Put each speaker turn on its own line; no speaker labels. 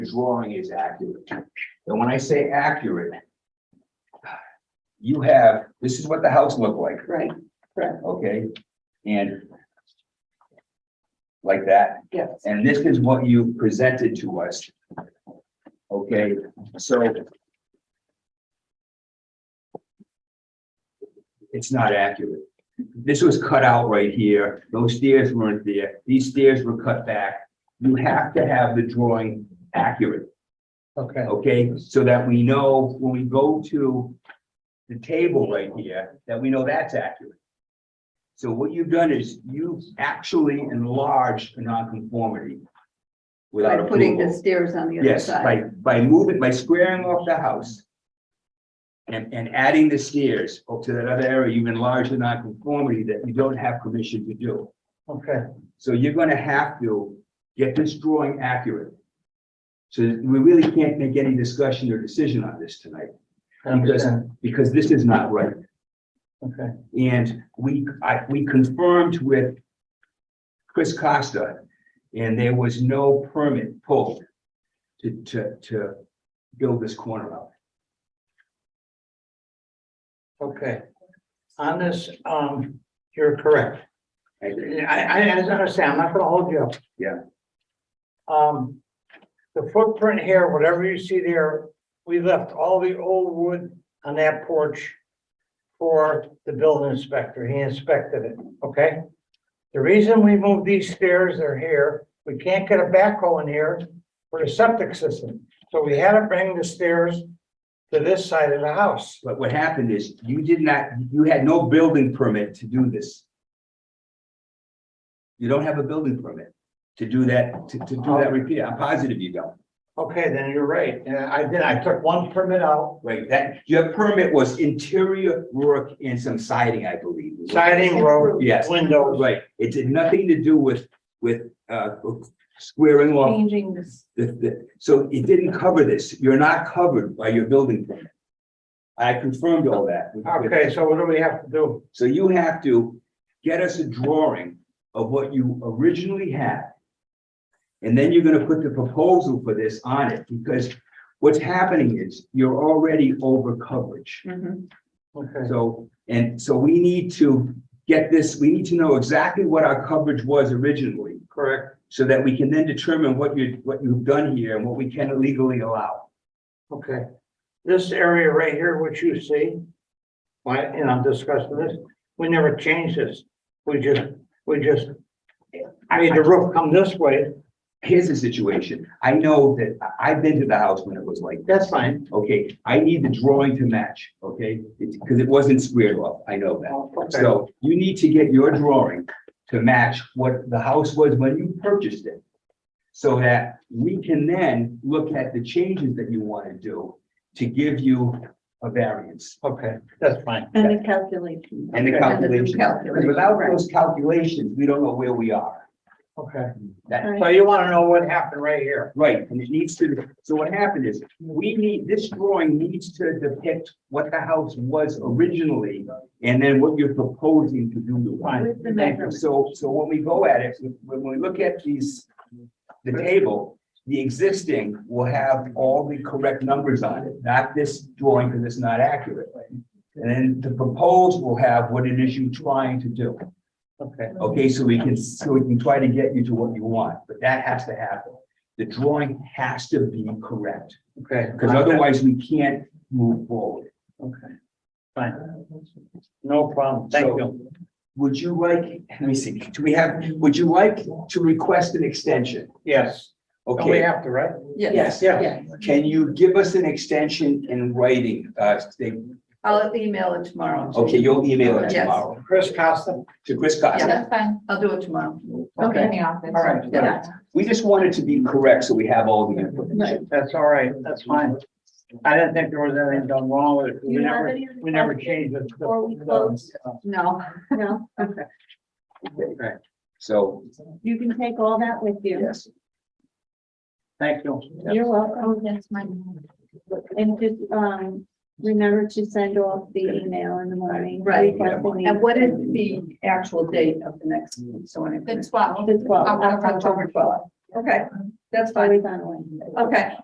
drawing is accurate. And when I say accurate, you have, this is what the house looked like,
right,
okay? And like that,
yes,
and this is what you presented to us. Okay, so it's not accurate. This was cut out right here. Those stairs weren't there. These stairs were cut back. You have to have the drawing accurate,
Okay,
okay? So that we know when we go to the table right here, that we know that's accurate. So what you've done is you've actually enlarged a nonconformity
by
without
putting the
approval.
stairs on the other
Yes,
side.
by, by moving, by squaring off the house. And, and adding the stairs up to that other area, you've enlarged the nonconformity that you don't have permission to do.
okay,
So you're gonna have to get this drawing accurate. So we really can't make any discussion or decision on this tonight,
I understand,
because this is not right.
okay,
And we, I, we confirmed with Chris Costa, and there was no permit pulled to, to, to build this corner out.
okay. On this, um, you're correct.
I agree.
I, I I understand, I'm not gonna hold you up.
Yeah.
Um, the footprint here, whatever you see there, we left all the old wood on that porch for the building inspector, he inspected it, okay? The reason we moved these stairs, they're here, we can't get a backhoe in here for the septic system, so we had to bring the stairs to this side of the house.
But what happened is, you did not, you had no building permit to do this. You don't have a building permit to do that, to, to do that repair. I'm positive you don't.
Okay, then you're right, and I did, I took one permit out,
Right, that, your permit was interior work and some siding, I believe.
siding, road,
Yes.
windows.
Right, it did nothing to do with, with, uh, squaring off
Changing this,
the, the, so it didn't cover this. You're not covered by your building permit. I confirmed all that. with- with-
Okay, so what do we have to do?
So you have to get us a drawing of what you originally had. And then you're gonna put the proposal for this on it, because what's happening is you're already over coverage.
Mhm.
Okay,
So, and so we need to get this, we need to know exactly what our coverage was originally,
correct,
so that we can then determine what you, what you've done here and what we can legally allow.
okay. This area right here, which you see, why, and I'm discussing this, we never changed this. We just, we just made the roof come this way,
Here's the situation. I know that, I- I've been to the house when it was like
that's fine.
Okay, I need the drawing to match, okay? Because it wasn't squared off, I know that.
Okay,
So you need to get your drawing to match what the house was when you purchased it. So that we can then look at the changes that you want to do to give you a variance
okay, that's fine.
and the calculation.
and the
new
calculation. Because
calculation,
without
right.
those calculations, we don't know where we are.
Okay,
That,
so you want to know what happened right here?
Right, and it needs to, so what happened is, we need, this drawing needs to depict what the house was originally and then what you're proposing to do to it.
With the measurements.
So, so when we go at it, when we look at these, the table, the existing will have all the correct numbers on it, not this drawing because it's not accurate. And then the proposed will have what it is you're trying to do.
Okay,
Okay, so we can, so we can try to get you to what you want, but that has to happen. The drawing has to be correct,
okay.
because otherwise we can't move forward.
Okay, fine. No problem, thank
So-
you.
Would you like, let me see, do we have, would you like to request an extension?
Yes, Don't we
Okay,
have to, right?
yes,
yeah.
can you give us an extension in writing? Uh, they-
I'll email it tomorrow.
okay, you'll email it
Yes.
tomorrow
Chris Costa?
to Chris
Yeah,
Costa.
that's fine. I'll do it tomorrow.
Okay.
In the office.
All right.
Yeah.
We just want it to be correct, so we have all the information.
That's all right, that's fine. I didn't think there was anything done wrong with it.
You
We
have
never,
any other
we never
questions
changed it.
before we close? No, no, okay.
Right.
So,
You can take all that with you.
yes,
Thank you.
You're welcome.
Oh, that's my.
And just, um, remember to send off the email in the morning.
Right.
requesting the-
And what is the,
actual date of the next zoning?
the twelve?
The twelve,
October
October twelve. Okay.
That's fine.
always on Wednesday.
Okay,